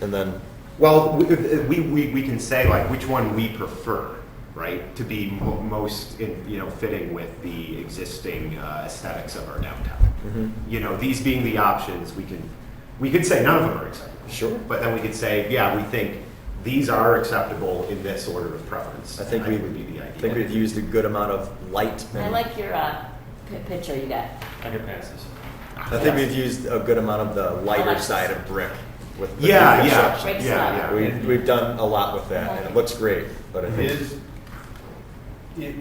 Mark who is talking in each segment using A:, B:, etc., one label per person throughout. A: and then,
B: Well, we, we, we can say like which one we prefer, right? To be mo- most, in- you know, fitting with the existing uh, aesthetics of our downtown.
A: mhm,
B: You know, these being the options, we can, we could say none of them are acceptable.
A: Sure.
B: But then we could say, yeah, we think these are acceptable in this order of preference.
A: I think
B: And
A: we,
B: that would be the idea.
A: I think we've used a good amount of light.
C: I
A: and-
C: like your uh, pi picture you got.
D: I can pass this.
A: I think we've used a good amount of the lighter
C: Lights.
A: side of brick with. with
B: Yeah,
A: the
B: yeah,
A: construction.
C: Breaks
B: yeah,
C: up.
B: yeah.
A: We, we've done a lot with that and it looks great, but I think,
D: Is, it,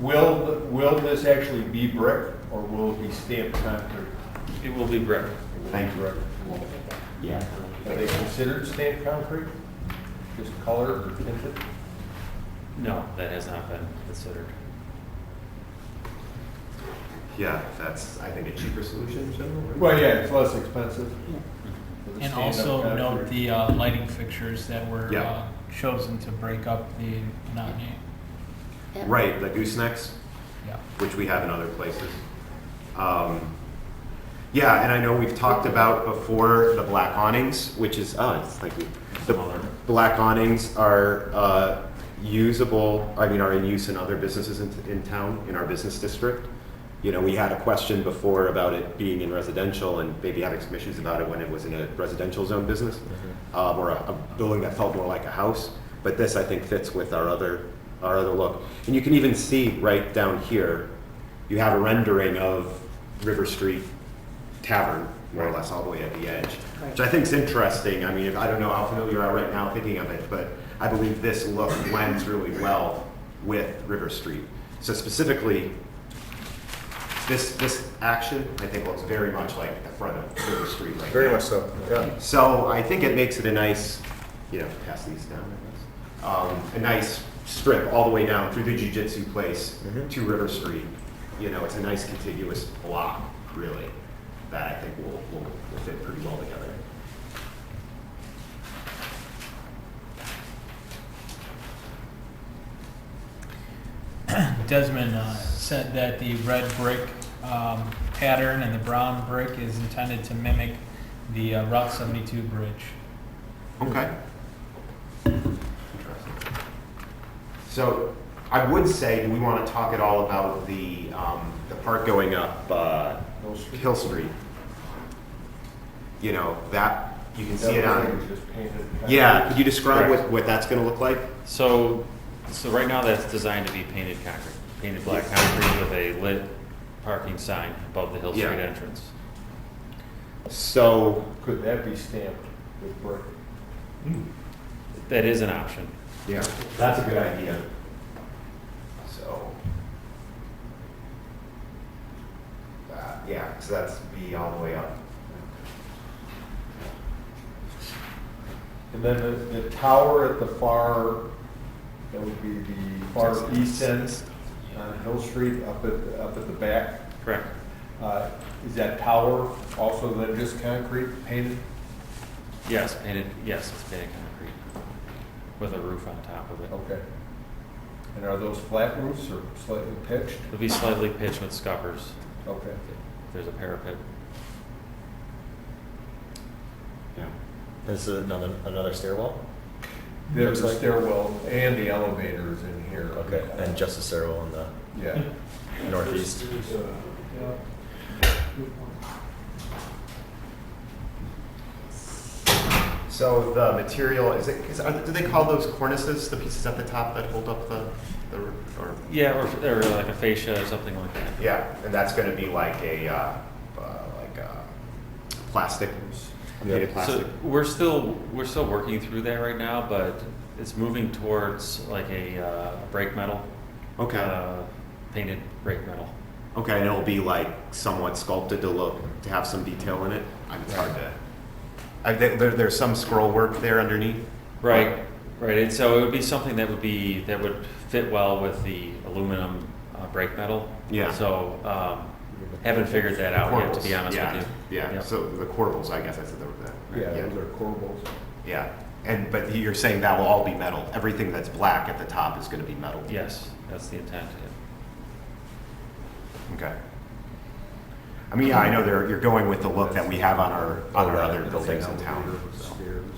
D: will, will this actually be brick or will it be stamped concrete?
E: It will be brick.
B: Thank you. Yeah.
D: Are they considered stamped concrete? Just color or tinted?
E: No, that has not been considered.
B: Yeah, that's, I think, a cheaper solution in general. right?
D: Well, yeah, it's less expensive. than
F: And
D: stand-up
F: also note
D: concrete.
F: the uh, lighting fixtures that were
B: Yeah.
F: uh, chosen to break up the monotony.
C: Yep.
B: Right, the goosenecks,
F: Yeah.
B: which we have in other places. Um, yeah, and I know we've talked about before the black awnings, which is, oh, it's like we, the black awnings are uh, usable, I mean, are in use in other businesses in, in town, in our business district. You know, we had a question before about it being in residential and maybe having some issues about it when it was in a residential zone business um, or a, a building that felt more like a house. But this, I think, fits with our other our other look. And you can even see right down here, you have a rendering of River Street Tavern, more or less, all the way at the edge, which I think is interesting. I mean, if, I don't know how familiar you are right now thinking of it, but I believe this look blends really well with River Street. So specifically, this this action, I think, looks very much like the front of River Street right
A: very
B: now.
A: much so, yeah.
B: So I think it makes it a nice, you know, pass these down, I guess. Um, a nice strip all the way down through the jujitsu place
D: Mm-hmm.
A: Mhm.
B: to River Street. You know, it's a nice contiguous block, really, that I think will, will, will fit pretty well together.
F: Desmond uh, said that the red brick um, pattern and the brown brick is intended to mimic the uh, Route 72 bridge.
B: Okay. Interesting. So I would say, do we want to talk at all about the, um, the part going up, uh,
D: Hill Street?
B: Hill Street? You know, that, you can see it
D: That
B: on.
D: was like just painted.
B: Yeah, could you describe what,
E: Correct.
B: what that's gonna look like?
E: So, so right now that's designed to be painted concrete, painted black concrete with a lit parking sign above the Hill Street
B: Yeah.
E: entrance.
B: So,
D: Could that be stamped with brick?
E: That is an option.
B: yeah, that's a good idea. So. Uh, yeah, so that's B all the way up.
D: And then the, the tower at the far, that would be the far east end on Hill Street, up at, up at the back.
E: Correct.
D: Uh, Is that tower also then just concrete painted?
E: Yes, painted, yes, it's painted concrete with a roof on top of it.
D: Okay. And are those flat roofs or slightly pitched?
E: It'll be slightly pitched with scuppers.
D: Okay.
E: There's a parapet.
B: Yeah.
A: This is another, another stairwell,
D: There's
A: Looks
D: a
A: like-
D: stairwell and the elevator is in here.
A: okay, and just a stairwell in the
D: Yeah.
A: northeast.
B: So the material, is it, is, are, do they call those cornices, the pieces at the top that hold up the, the, or?
E: Yeah, or, or like a fascia or something like that.
B: Yeah, and that's gonna be like a, uh, uh, like a plastic,
A: Yeah.
B: painted plastic.
E: So we're still, we're still working through that right now, but it's moving towards like a uh, brake metal.
B: Okay.
E: uh, Painted brake metal.
B: Okay, and it'll be like somewhat sculpted to look, to have some detail in it. I'm- It's hard to. I, there, there- there's some scroll work there underneath.
E: Right, right, and so it would be something that would be, that would fit well with the aluminum uh, brake metal.
B: Yeah.
E: So, um, haven't figured that out yet, to be
B: Corbels,
E: honest
B: Oh, yeah,
E: with you.
B: Yeah,
E: Yep.
B: so the corbels, I guess I said that.
D: Yeah, those are corbels.
B: Yeah, and, but you're saying that will all be metal. Everything that's black at the top is gonna be metal.
E: Yes, that's the intent, yeah.
B: Okay. I mean, yeah, I know there, you're going with the look that we have on our, on our
A: Right.
B: other buildings in town. so.
D: Stairs.